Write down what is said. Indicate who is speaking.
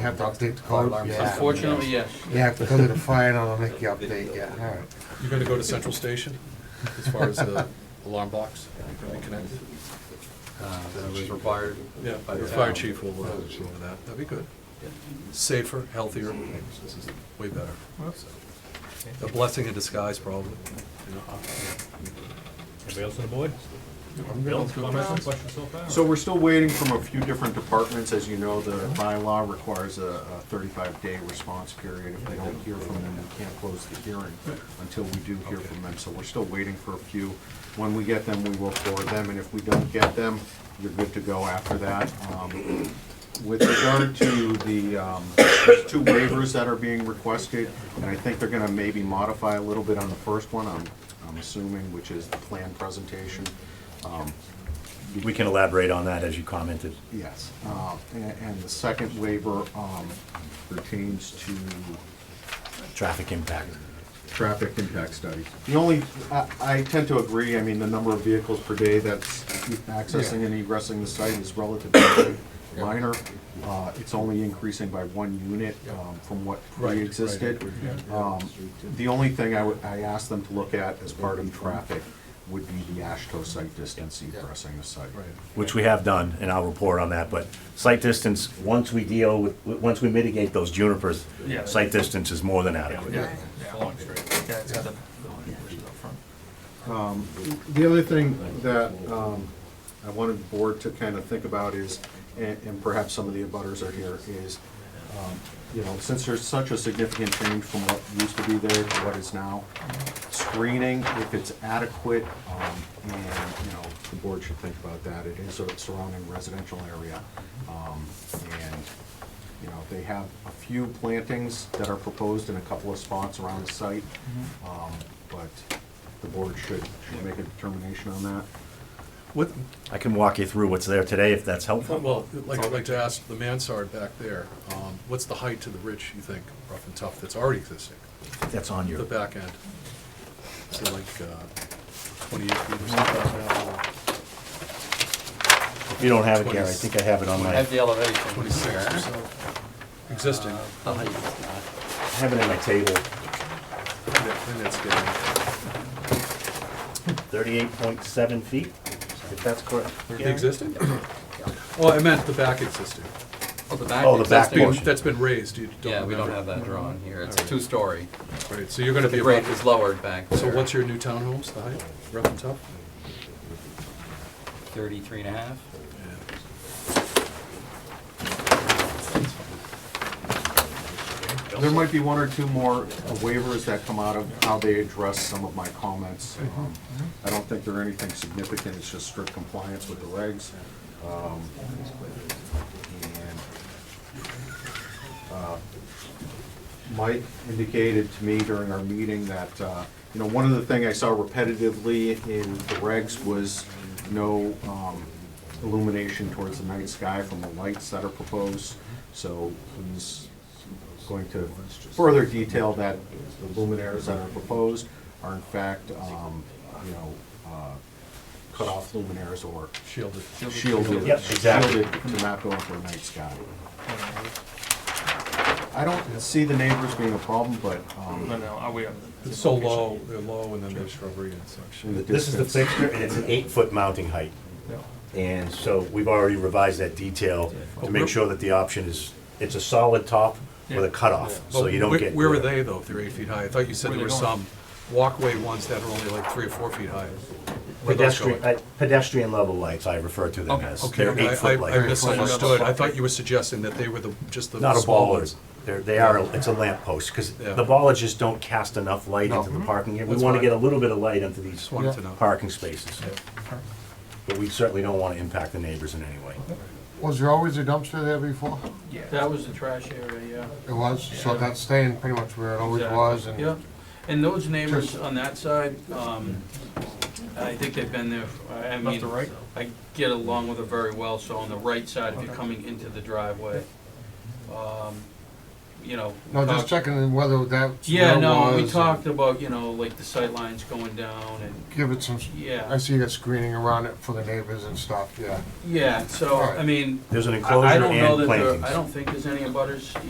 Speaker 1: have to update the code?
Speaker 2: Yeah.
Speaker 3: Unfortunately, yes.
Speaker 1: You have to come to the fire and I'll make you update, yeah, all right.
Speaker 4: You're gonna go to Central Station as far as the alarm blocks? You're gonna be connected?
Speaker 2: uh, that was required.
Speaker 4: Yeah,
Speaker 2: by the
Speaker 4: the fire
Speaker 2: town.
Speaker 4: chief will uh, go over that. That'd be good. Safer, healthier, this is way better. So, A blessing in disguise, probably. you know. uh,
Speaker 5: Anybody else on the board? Bill, comments or questions so far?
Speaker 6: So we're still waiting from a few different departments. As you know, the bylaw requires a thirty-five day response period. If they don't hear from them, we can't close the hearing until we do hear from them. So we're still waiting for a few. When we get them, we will forward them, and if we don't get them, you're good to go after that. Um, With regard to the, um, there's two waivers that are being requested, and I think they're gonna maybe modify a little bit on the first one, I'm, I'm assuming, which is the plan presentation. Um,
Speaker 7: We can elaborate on that as you commented.
Speaker 6: Yes, uh, and and the second waiver um, pertains to
Speaker 7: Traffic impact.
Speaker 6: traffic impact study. The only, I- I tend to agree, I mean, the number of vehicles per day that's accessing and egressing the site is relatively minor. Uh, It's only increasing by one unit um, from what
Speaker 4: Right, right.
Speaker 6: pre-existed. Um, The only thing I would, I asked them to look at as part of traffic would be the Ashto site distance egressing the site.
Speaker 4: Right.
Speaker 7: which we have done, and I'll report on that, but site distance, once we deal with, w- once we mitigate those junipers,
Speaker 3: Yeah.
Speaker 7: site distance is more than adequate.
Speaker 3: Yeah.
Speaker 5: Following straight.
Speaker 3: Yeah, it's got the-
Speaker 6: The other thing that um, I wanted the board to kind of think about is, and and perhaps some of the abutters are here, is, um, you know, since there's such a significant change from what used to be there to what is now, screening, if it's adequate, um, and, you know, the board should think about that. It is a surrounding residential area. um, And, you know, they have a few plantings that are proposed in a couple of spots around the site. um, But the board should, should make a determination on that.
Speaker 4: What,
Speaker 7: I can walk you through what's there today if that's helpful.
Speaker 4: well, I'd like, I'd like to ask the mansard back there, um, what's the height to the ridge, you think, rough and tough, that's already existing?
Speaker 7: That's on
Speaker 4: The
Speaker 7: your,
Speaker 4: back end? Is it like uh, 28 feet or something?
Speaker 7: if you don't have it, Gary, I think I have it on
Speaker 3: I
Speaker 7: my,
Speaker 3: have the elevation. Oh,
Speaker 4: 26 or so, existing.
Speaker 3: The height is not.
Speaker 7: I have it in my table.
Speaker 4: And it- and it's getting-
Speaker 7: Thirty-eight point seven feet, if that's correct.
Speaker 4: The
Speaker 7: Gary?
Speaker 4: existing? Oh, I meant the back existing.
Speaker 3: Oh, the back.
Speaker 7: Oh, the back
Speaker 4: That's been,
Speaker 3: existing-
Speaker 7: portion.
Speaker 4: that's been raised, you don't
Speaker 3: Yeah, we don't
Speaker 4: remember.
Speaker 3: have that drawn here. It's a two-story.
Speaker 4: Right, so you're gonna be
Speaker 3: The grade
Speaker 4: about,
Speaker 3: is lowered back there.
Speaker 4: so what's your new townhomes, the height, rough and tough?
Speaker 3: Thirty-three and a half?
Speaker 6: There might be one or two more waivers that come out of how they address some of my comments. Um, I don't think they're anything significant, it's just strict compliance with the regs. Um, and, uh, Mike indicated to me during our meeting that, uh, you know, one of the things I saw repetitively in the regs was no um, illumination towards the night sky from the lights that are proposed. So he's going to further detail that the luminaires that are proposed are in fact, um, you know, uh, cut-off luminaires or
Speaker 4: Shielded.
Speaker 6: shielded,
Speaker 7: Yep, exactly.
Speaker 6: shielded to not go into the night sky. I don't see the neighbors being a problem, but, um,
Speaker 5: no, are we?
Speaker 4: It's so low, they're low, and then there's shrubbery and such.
Speaker 6: in the
Speaker 7: This is the
Speaker 6: distance.
Speaker 7: fixture, and it's an eight-foot mounting height. And so we've already revised that detail to make sure that the option is, it's a solid top with a cutoff, so you don't
Speaker 4: Where-
Speaker 7: get.
Speaker 4: Where were they though, if they're eight feet high? I thought you said there were some walkway ones that are only like three or four feet high. Where those
Speaker 7: Pedestrian,
Speaker 4: going?
Speaker 7: uh, pedestrian level lights, I refer to them as.
Speaker 4: Okay,
Speaker 7: They're
Speaker 4: I-
Speaker 7: eight-foot
Speaker 4: I, I
Speaker 7: lights.
Speaker 4: misunderstood. I thought you were suggesting that they were the, just the
Speaker 7: Not a
Speaker 4: small
Speaker 7: baller.
Speaker 4: ones.
Speaker 7: They're, they are, it's a lamp post, because
Speaker 4: Yeah. Mm-hmm.
Speaker 7: the ballers just don't cast enough light into the parking area. We
Speaker 4: That's
Speaker 7: want to
Speaker 4: fine.
Speaker 7: get a little bit of light into these
Speaker 4: Just wanted to know.
Speaker 7: parking spaces. But we certainly don't want to impact the neighbors in any way.
Speaker 1: Was there always a dumpster there before?
Speaker 8: That was the trash area,
Speaker 1: It was, so
Speaker 8: Yeah.
Speaker 1: that's staying pretty much where it always
Speaker 8: Exactly.
Speaker 1: was
Speaker 8: yeah.
Speaker 1: and.
Speaker 8: Yep. And those neighbors on that side, um, I think they've been there, I I mean.
Speaker 5: Left or right?
Speaker 8: I get along with her very well, so on the right side, if you're coming into the driveway, um, you know.
Speaker 1: No, just
Speaker 8: talked-
Speaker 1: checking whether that.
Speaker 8: Yeah, no, we talked about, you know, like the sight lines going down and,
Speaker 1: Give it some, s- I
Speaker 8: yeah,
Speaker 1: see that screening around it for the neighbors and stuff, yeah.
Speaker 8: yeah, so, I
Speaker 1: Alright.
Speaker 8: mean,
Speaker 7: There's an
Speaker 8: I I
Speaker 7: enclosure
Speaker 8: don't know
Speaker 7: and
Speaker 8: that there,
Speaker 7: plantings.
Speaker 8: I don't think there's any butters